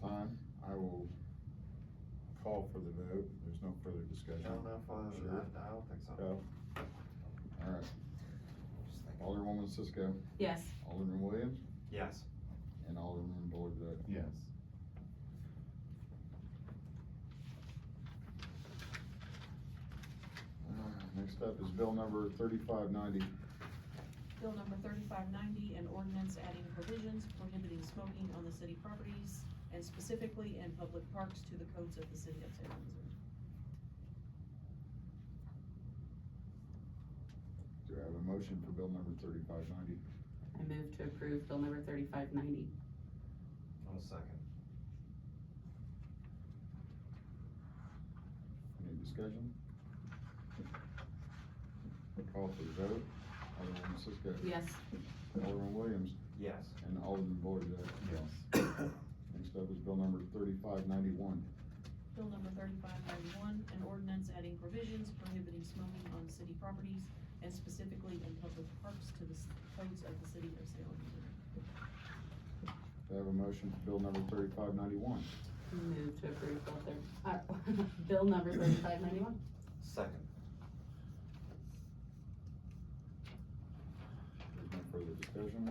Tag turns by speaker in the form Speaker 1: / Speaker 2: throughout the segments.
Speaker 1: time, I will call for the vote. There's no further
Speaker 2: I
Speaker 1: discussion.
Speaker 2: don't know if, uh,
Speaker 1: Sure.
Speaker 2: I, I don't think so.
Speaker 1: Go. All right. Alderwoman Cisco,
Speaker 3: Yes.
Speaker 1: Alderman Williams,
Speaker 2: Yes.
Speaker 1: and Alderman Boyd vote
Speaker 4: Yes.
Speaker 1: Next up is bill number thirty-five ninety.
Speaker 3: Bill number thirty-five ninety, an ordinance adding provisions prohibiting smoking on the city properties and specifically in public parks to the codes of the city of Salem, Missouri.
Speaker 1: Do I have a motion for bill number thirty-five ninety?
Speaker 5: I move to approve bill number thirty-five ninety.
Speaker 2: One second.
Speaker 1: Any discussion? Call for the vote. Alderwoman Cisco.
Speaker 5: Yes.
Speaker 1: Alderman Williams
Speaker 2: Yes.
Speaker 1: and Alderman Boyd vote
Speaker 4: Yes.
Speaker 1: Next up is bill number thirty-five ninety-one.
Speaker 3: Bill number thirty-five ninety-one, an ordinance adding provisions prohibiting smoking on city properties and specifically in public parks to the s- codes of the city of Salem, Missouri.
Speaker 1: Do I have a motion for bill number thirty-five ninety-one?
Speaker 5: Move to approve bill thir- uh, bill number thirty-five ninety-one.
Speaker 2: Second.
Speaker 1: There's no further discussion.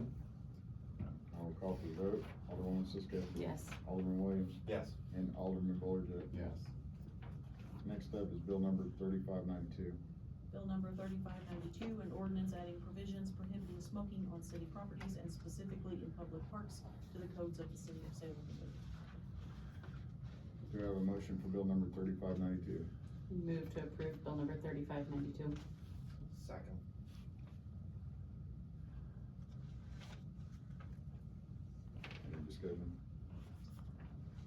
Speaker 1: I will call for the vote. Alderwoman Cisco.
Speaker 5: Yes.
Speaker 1: Alderman Williams
Speaker 2: Yes.
Speaker 1: and Alderman Boyd vote
Speaker 4: Yes.
Speaker 1: Next up is bill number thirty-five ninety-two.
Speaker 3: Bill number thirty-five ninety-two, an ordinance adding provisions prohibiting smoking on city properties and specifically in public parks to the codes of the city of Salem, Missouri.
Speaker 1: Do I have a motion for bill number thirty-five ninety-two?
Speaker 5: Move to approve bill number thirty-five ninety-two.
Speaker 2: Second.
Speaker 1: Any discussion?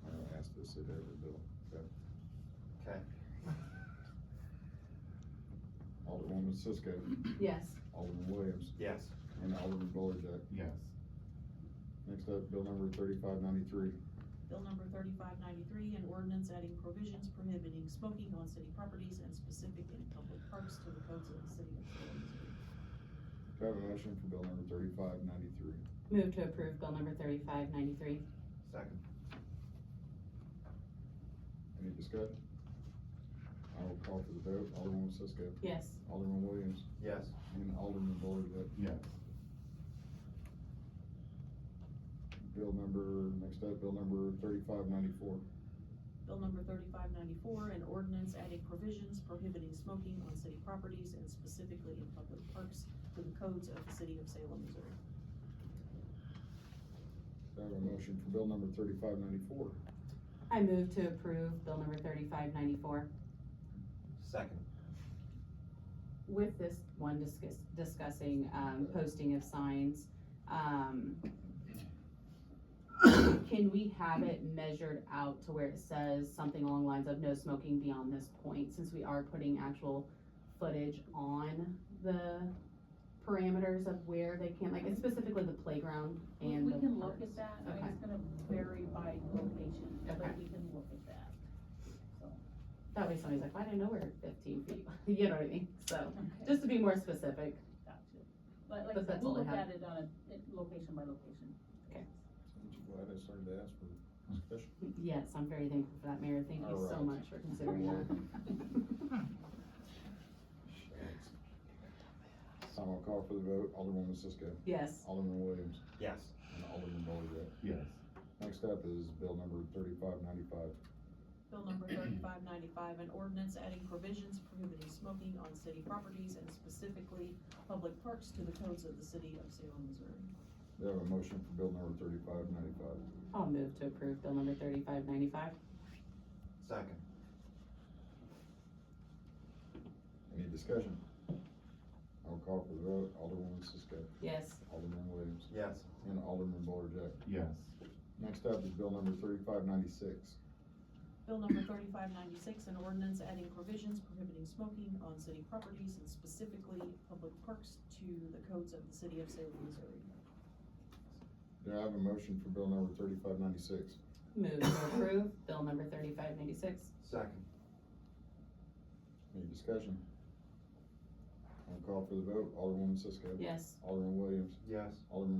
Speaker 1: I'll ask this at every bill.
Speaker 2: Okay.
Speaker 1: Alderwoman Cisco,
Speaker 5: Yes.
Speaker 1: Alderman Williams,
Speaker 2: Yes.
Speaker 1: and Alderman Boyd vote
Speaker 4: Yes.
Speaker 1: Next up, bill number thirty-five ninety-three.
Speaker 3: Bill number thirty-five ninety-three, an ordinance adding provisions prohibiting smoking on city properties and specific in public parks to the codes of the city of Salem, Missouri.
Speaker 1: Do I have a motion for bill number thirty-five ninety-three?
Speaker 5: Move to approve bill number thirty-five ninety-three.
Speaker 2: Second.
Speaker 1: Any discussion? I will call for the vote. Alderwoman Cisco,
Speaker 5: Yes.
Speaker 1: Alderman Williams,
Speaker 2: Yes.
Speaker 1: and Alderman Boyd vote
Speaker 4: Yes.
Speaker 1: Bill number, next up, bill number thirty-five ninety-four.
Speaker 3: Bill number thirty-five ninety-four, an ordinance adding provisions prohibiting smoking on city properties and specifically in public parks to the codes of the city of Salem, Missouri.
Speaker 1: Do I have a motion for bill number thirty-five ninety-four?
Speaker 5: I move to approve bill number thirty-five ninety-four
Speaker 2: Second.
Speaker 5: with this one discuss, discussing, um, posting of signs. Um, can we have it measured out to where it says something along the lines of no smoking beyond this point? Since we are putting actual footage on the parameters of where they can, like it's specifically the playground
Speaker 6: We
Speaker 5: and
Speaker 6: we
Speaker 5: the
Speaker 6: can look
Speaker 5: parks.
Speaker 6: at that, I mean,
Speaker 5: Okay.
Speaker 6: it's gonna vary by location,
Speaker 5: Okay.
Speaker 6: but we can look at that.
Speaker 5: That way somebody's like, "Why didn't I know we're fifteen feet, you know what I mean? So,
Speaker 6: Okay.
Speaker 5: just to be more specific,
Speaker 6: Gotcha. But like, I
Speaker 5: But
Speaker 6: said,
Speaker 5: that's
Speaker 6: we'll
Speaker 5: all I
Speaker 6: look
Speaker 5: have.
Speaker 6: at it on a, it- location by location.
Speaker 1: Aren't you glad I started to ask for discussion?
Speaker 5: yes, I'm very thankful for that, Mayor, thank you so
Speaker 1: Alright.
Speaker 5: much for considering that.
Speaker 1: So I'll call for the vote. Alderwoman Cisco,
Speaker 5: Yes,
Speaker 1: Alderman Williams,
Speaker 2: Yes.
Speaker 1: and Alderman Boyd vote
Speaker 4: Yes.
Speaker 1: Next up is bill number thirty-five ninety-five.
Speaker 3: Bill number thirty-five ninety-five, an ordinance adding provisions prohibiting smoking on city properties and specifically public parks to the codes of the city of Salem, Missouri.
Speaker 1: Do I have a motion for bill number thirty-five ninety-five?
Speaker 5: I'll move to approve bill number thirty-five ninety-five.
Speaker 2: Second.
Speaker 1: Any discussion? I'll call for the vote. Alderwoman Cisco,
Speaker 5: Yes,
Speaker 1: Alderman Williams,
Speaker 2: Yes.
Speaker 1: and Alderman Boyd vote
Speaker 4: Yes.
Speaker 1: Next up is bill number thirty-five ninety-six.
Speaker 3: Bill number thirty-five ninety-six, an ordinance adding provisions prohibiting smoking on city properties and specifically public parks to the codes of the city of Salem, Missouri.
Speaker 1: Do I have a motion for bill number thirty-five ninety-six?
Speaker 5: move to approve bill number thirty-five ninety-six.
Speaker 2: Second.
Speaker 1: Any discussion? I'll call for the vote. Alderwoman Cisco.
Speaker 5: Yes.
Speaker 1: Alderman Williams,
Speaker 2: Yes.
Speaker 1: Alderman